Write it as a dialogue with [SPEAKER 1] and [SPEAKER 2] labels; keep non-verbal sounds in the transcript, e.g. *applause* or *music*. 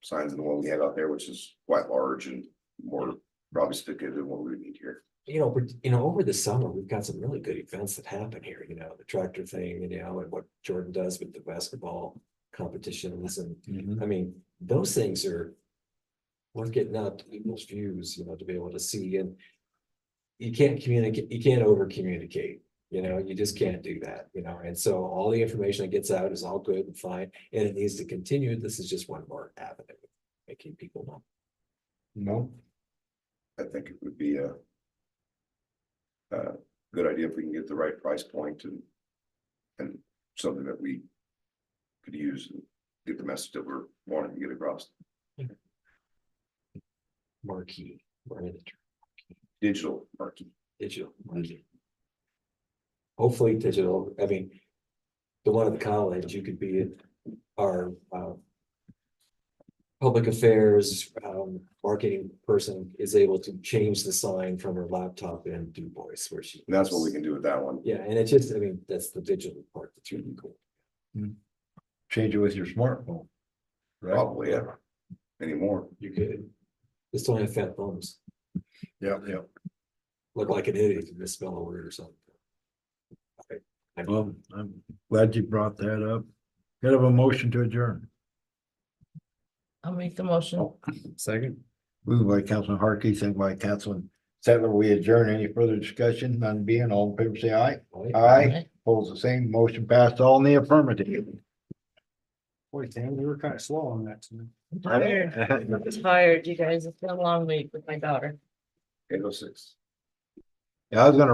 [SPEAKER 1] signs than the one we have out there, which is quite large and more probably sophisticated than what we would need here.
[SPEAKER 2] you know, but, you know, over the summer, we've got some really good events that happen here, you know, the tractor thing, you know, and what Jordan does with the basketball competitions and, I mean, those things are worth getting out to people's views, you know, to be able to see and you can't communicate, you can't over communicate, you know, you just can't do that, you know, and so all the information that gets out is all good and fine and it needs to continue. This is just one more avenue of making people know.
[SPEAKER 3] No,
[SPEAKER 1] I think it would be a a good idea if we can get the right price point and and something that we could use and get the message that we're wanting to get across.
[SPEAKER 2] marquee, we're in the
[SPEAKER 1] Digital marketing.
[SPEAKER 2] digital marketing. Hopefully digital, I mean, the one at the college, you could be our, uh, public affairs, um, marketing person is able to change the sign from her laptop into voice where she.
[SPEAKER 1] And that's what we can do with that one.
[SPEAKER 2] Yeah, and it's just, I mean, that's the digital part that's really cool.
[SPEAKER 3] change it with your smartphone. Right?
[SPEAKER 1] Probably, yeah. Anymore.
[SPEAKER 2] You could, just don't have fat thumbs,
[SPEAKER 3] Yeah, yeah.
[SPEAKER 2] look like an idiot if you misspell a word or something.
[SPEAKER 3] Well, I'm glad you brought that up. Could I have a motion to adjourn.
[SPEAKER 4] I'll make the motion.
[SPEAKER 3] Second. Moved by Councilman Harkey, second by Councilman Settler. We adjourn. Any further discussion? None being, all in favor, say aye.
[SPEAKER 1] Uh,
[SPEAKER 3] Aye,
[SPEAKER 4] Aye.
[SPEAKER 3] Pose the same, motion passed all in the affirmative.
[SPEAKER 5] Boy, damn, they were kind of slow on that tonight.
[SPEAKER 3] *laughs*
[SPEAKER 4] I'm tired. I'm tired, you guys. It's been a long week with my daughter.
[SPEAKER 1] Eight oh six.
[SPEAKER 3] Yeah, I was gonna